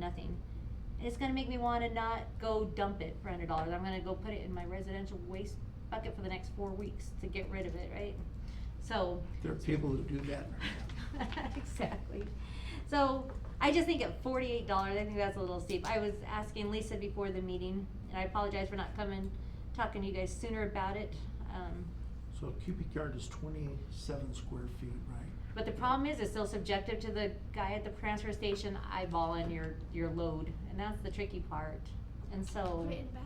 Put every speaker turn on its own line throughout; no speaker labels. nothing. And it's gonna make me wanna not go dump it for hundred dollars, I'm gonna go put it in my residential waste bucket for the next four weeks to get rid of it, right? So,
There are people who do that.
exactly. So I just think at forty-eight dollars, I think that's a little steep. I was asking Lisa before the meeting, and I apologize for not coming, talking to you guys sooner about it. Um,
So a cubic yard is twenty-seven square feet, right?
but the problem is, it's still subjective to the guy at the transfer station eyeballing your, your load, and that's the tricky part. And so,
Put it in a bag.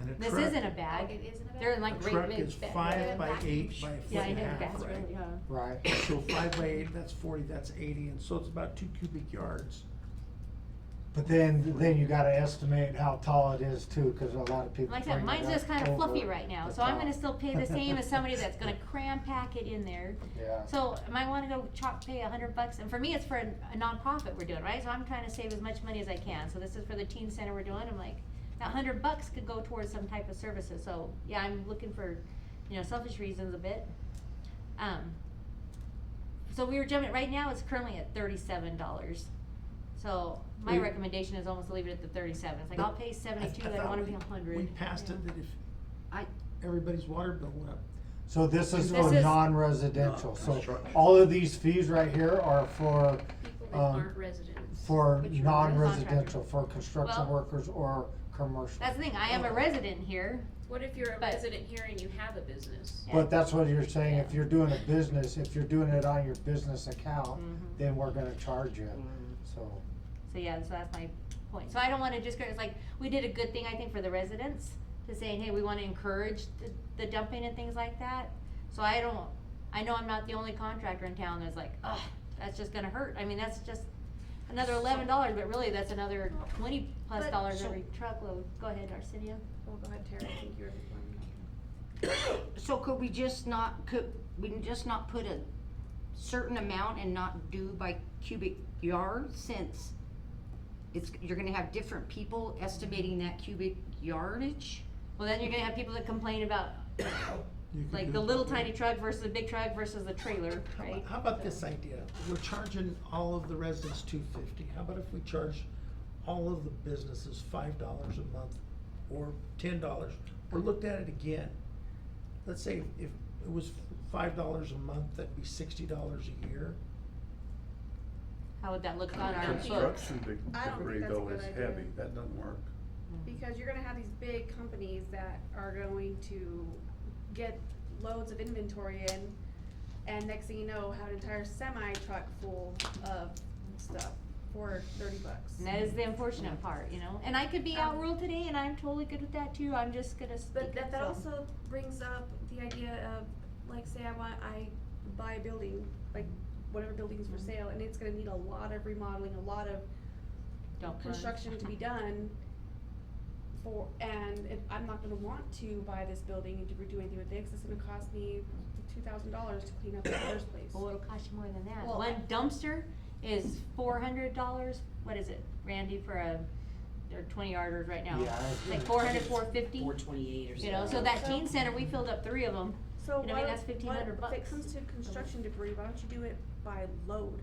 And a
this
truck-
isn't a bag.
It is in a bag.
They're in
A
like great
truck
big.
is
ba-
five by
Back.
eight by a foot
Yeah, I
and a
know,
half,
that's
right?
really, uh,
Right.
So five by eight, that's forty, that's eighty, and so it's about two cubic yards.
But then, then you gotta estimate how tall it is too, cause a lot of people.
Like I said,
bring it
mine's
up
just kind of fluffy
over
right now,
the
so I'm
top.
gonna still pay the same as somebody that's gonna cram pack it in there.
Yeah.
So am I wanna go chop, pay a hundred bucks, and for me, it's for a a nonprofit we're doing, right? So I'm trying to save as much money as I can, so this is for the teen center we're doing, I'm like, that hundred bucks could go towards some type of services, so, yeah, I'm looking for, you know, selfish reasons a bit. Um, so we were jumping, right now, it's currently at thirty-seven dollars. So my
We-
recommendation is almost to leave it at the thirty-seven, it's like, I'll pay seventy-two, I
thought
don't wanna
we-
be a hundred.
We passed it that if
I-
everybody's water bill went up,
So this is
This
for
is-
non-residential, so
Non-construction.
all of these fees right here are for,
People that
um,
aren't residents.
for
But you're a
non-residential, for construction
Well-
workers or commercial.
That's the thing, I am a resident here,
What if you're a
But-
resident here and you have a business?
yeah.
But that's what you're saying, if
Yeah.
you're doing a business, if you're doing it on your business account,
Mhm.
then we're gonna charge you,
Mm-hmm.
so.
So yeah, so that's my point. So I don't wanna just, go- it's like, we did a good thing, I think, for the residents, to saying, hey, we wanna encourage the, the dumping and things like that. So I don't, I know I'm not the only contractor in town that's like, ugh, that's just gonna hurt. I mean, that's just another eleven dollars, but really, that's another twenty plus
But-
dollars
so-
every truckload. Go ahead, Arsenio.
Well, go ahead, Tara, I think you're the
So could we just not, could we just not put a certain amount and not do by cubic yard since it's, you're gonna have different people estimating that cubic yardage?
Well, then you're gonna have people that complain about,
you could
like,
do
the
it
little
that way.
tiny truck versus the big truck versus the trailer,
How
right?
about, how about this idea? We're charging all of the residents two fifty. How about if we charge all of the businesses five dollars a month or ten dollars? Or looked at it again. Let's say if it was five dollars a month, that'd be sixty dollars a year.
How would that look on our books?
Construction de-
I don't think
debris
that's a
though
good
is
idea.
heavy, that doesn't work.
Mm.
Because you're gonna have these big companies that are going to get loads of inventory in, and next thing you know, have an entire semi truck full of stuff for thirty bucks.
And that is the unfortunate part, you know. And I could be out
Um,
rural today, and I'm totally good with that too. I'm just gonna.
But
speak
that,
up,
that
so.
also brings up the idea of, like, say I want, I buy a building, like, whatever building's for
Mm-hmm.
sale, and it's gonna need a lot of remodeling, a lot of
Don't burn.
construction to be done for, and if, I'm not gonna want to buy this building and do, do anything with it, 'cause it's gonna cost me two thousand dollars to clean up in the first place.
Well, it'll cost you more than that.
Well,
One dumpster is four hundred dollars. What is it, Randy, for a? They're twenty yarders right now.
Yeah, I was
Like
gonna-
four hundred, four fifty.
Four twenty-eight or something.
You know, so that teen center, we filled up three of them.
So
you know, I mean,
why-
that's 1,500
why- If
bucks.
it comes to construction debris, why don't you do it by load?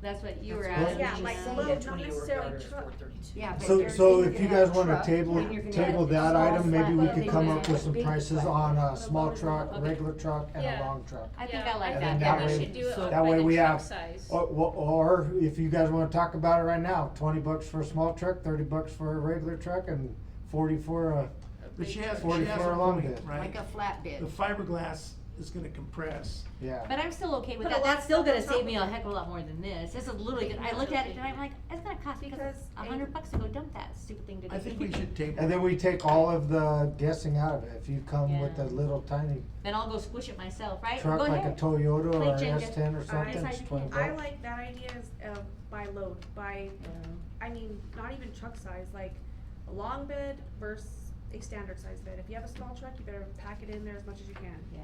That's what you were
That's
asking.
what
Yeah,
me
like
now.
load,
Yeah,
not
twenty over
necessarily
yard is
truck.
432.
Yeah, but
So,
you're-
so
you're
if
gonna
you
have
guys wanna
truck,
table,
then you're gonna
table
have
that
small
item, maybe we
flat,
could
then
come
you're
up
gonna
with
have
some
big
prices
flat.
on
a
a small
loader.
truck,
Okay.
regular truck, and a
Yeah.
long truck.
I think I like
And
that.
then
Yeah,
that
we
way-
should do-
do it
that way
by the
we
truck
have- Oh,
size.
Or, or if you guys wanna talk about it right now, twenty bucks for a small truck, thirty bucks for a regular truck, and forty for a,
But she has, she
40
has
for
a
a long
point,
bid.
right?
Like a
The
flatbed.
fiberglass is gonna compress.
yeah.
But I'm still okay with
Put a
that.
lot
That's still
of stuff
gonna
on top
save me a
of it.
heck of a lot more than this. This is literally, good. I looked at it and I'm like, it's gonna cost me
Because
a
a-
hundred bucks to go dump that stupid thing today.
I think we should table.
And then we take all of the guessing out of it, if you come with
Yeah.
a little tiny
Then I'll go squish it myself, right?
truck
Go
like a
ahead.
Toyota
Play
or an
Jenga.
S ten or something,
decide
it's
you
twenty
can't.
bucks.
I like that idea is, uh, by load, by, I mean, not even truck size, like a long bed versus a standard size bed. If you have a small truck, you better pack it in there as much as you can.
Yeah.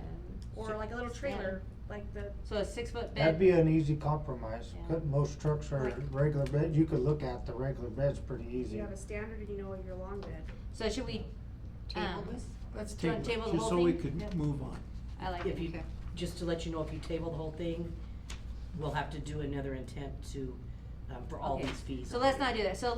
Or like a little trailer, like the
So a six foot
That'd
bed,
be an easy compromise,
Yeah.
Could- most trucks are
Like-
regular bed, you could look at the regular beds pretty
You
easy.
have a standard and you know your long bed.
so should we,
Table
Um,
this?
Let's
Do you wanna
table it,
table the
just
whole
so we
thing? Yeah.
could move on.
I like
If
it.
you, just to let you know, if you table the whole thing, we'll have to do another intent to, um, for all
Okay.
these fees.
So let's not do that. So